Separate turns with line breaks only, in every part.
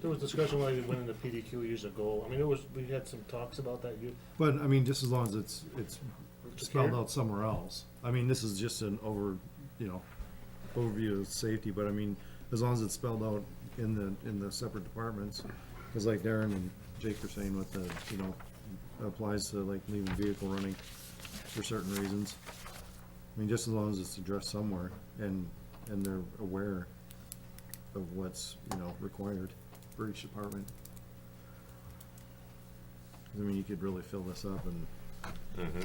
There was discussion when we went into PDQ years ago. I mean, it was, we had some talks about that. You,
But, I mean, just as long as it's, it's
Just
spelled
here?
out somewhere else. I mean, this is just an over, you know, overview of safety, but I mean, as long as it's spelled out in the, in the separate departments. Cause like Darren and Jake were saying with the, you know, applies to like leaving vehicle running for certain reasons. I mean, just as long as it's addressed somewhere and, and they're aware of what's, you know, required for each department. 'Cause, I mean, you could really fill this up and
Mm-hmm.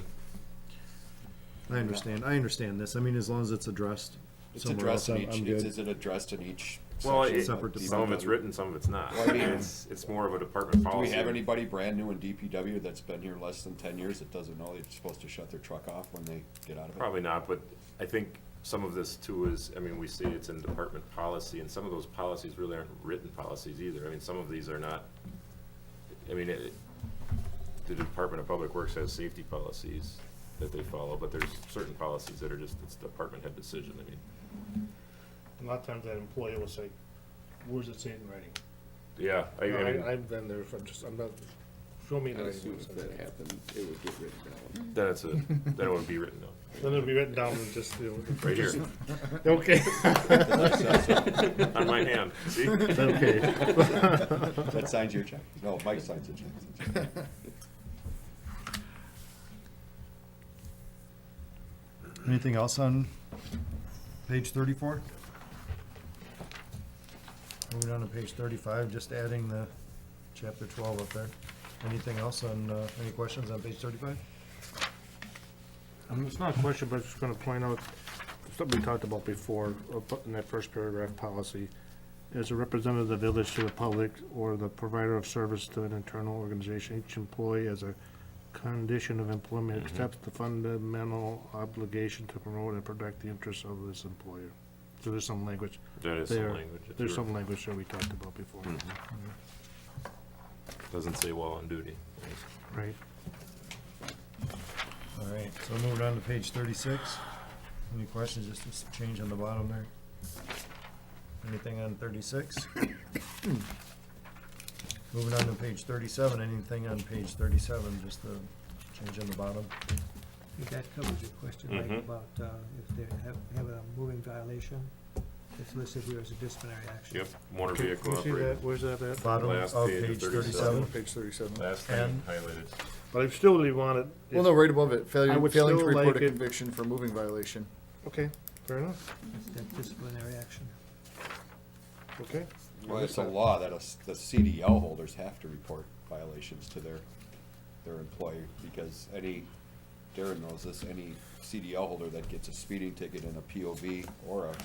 I understand, I understand this, I mean, as long as it's addressed
It's
somewhere else,
addressed in
I'm, I'm
each, is, is
good.
it addressed in each?
Well,
section
it-
of
Separate
DPW?
Some of it's written, some of it's not.
Well, I mean-
It's, it's more of a department
Do we
policy.
have anybody brand new in DPW that's been here less than ten years that doesn't know they're supposed to shut their truck off when they get out of it?
Probably not, but I think some of this too is, I mean, we say it's in department policy, and some of those policies really aren't written policies either. I mean, some of these are not, I mean, it, the Department of Public Works has safety policies that they follow, but there's certain policies that are just, it's department head decision, I mean.
a lot of times that employee will say, where's it say it in writing?
Yeah, I, I mean,
I, I've been there, if I'm just, I'm not, show me the
As soon
writing.
as that
where it says
happened, it would get written down.
then it's a, then it wouldn't be written though,
it. Then it'll be written down and just, you
right here,
know, okay.
on my hand, see?
Okay,
That signs your check. No, Mike signs the check.
anything else on page thirty-four? Moving on to page thirty-five, just adding the chapter twelve up there. Anything else on, uh, any questions on page thirty-five?
Um, It's not a question, but I'm just gonna point out something we talked about before, uh, bu- in that first paragraph policy. As a representative of the village to the public or the provider of service to an internal organization, each employee as a condition of employment
Mm-hmm.
accepts the fundamental obligation to promote and protect the interests of this employer. So there's some language
That is
there.
some language. if
There's
you're-
some language that we talked about before,
Mm-hmm. Doesn't say while on duty.
right?
All right, so moving on to page thirty-six. Any questions, just this change on the bottom there? Anything on thirty-six? Moving on to page thirty-seven, anything on page thirty-seven, just the change on the bottom?
If That covers your question, Mike,
Mhm.
about uh, if they have, have a moving violation, it's listed here as a disciplinary action.
Yep, motor vehicle operator.
Where's that at?
Bottom
Last
of
page of
page
37.
thirty-seven?
Page thirty-seven.
Last
And-
thing highlighted.
But I still really want it.
Well, no, right above it,
I
failure,
would
failing to
still
report a
like it-
conviction for moving violation.
Okay, fair enough,
It's that disciplinary action.
okay.
Well, it's a law that us, the CDL holders have to report violations to their, their employer, because any, Darren knows this, any CDL holder that gets a speeding ticket in a POV or a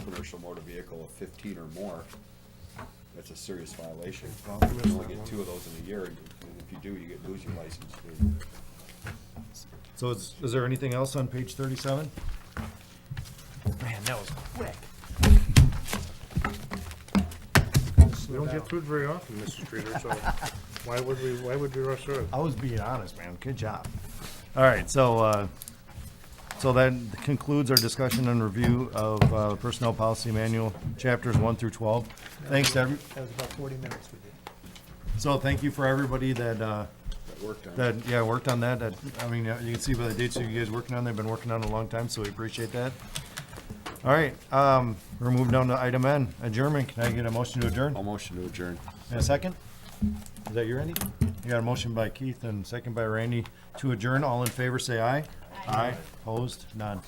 commercial motor vehicle of fifteen or more, that's a serious violation. You only get two of those in a year, and if you do, you get, lose your license.
So is, is there anything else on page thirty-seven?
Man, that was quick.
We don't get food very often, Mr. Streeter, so why would we, why would we rush through it?
I was being honest, man. Good job. All right, so, uh, so that concludes our discussion and review of, uh, Personnel Policy Manual, chapters one through twelve. Thanks to every,
That was about forty minutes we did.
so thank you for everybody that, uh,
That worked on it.
that, yeah, worked on that. That, I mean, uh, you can see by the dates that you guys working on, they've been working on it a long time, so we appreciate that. All right, um, we're moving down to item N, adjournment. Can I get a motion to adjourn?
I'll motion to adjourn.
And a second? Is that you, Randy? You got a motion by Keith and second by Randy to adjourn. All in favor, say aye. Aye. Opposed? None.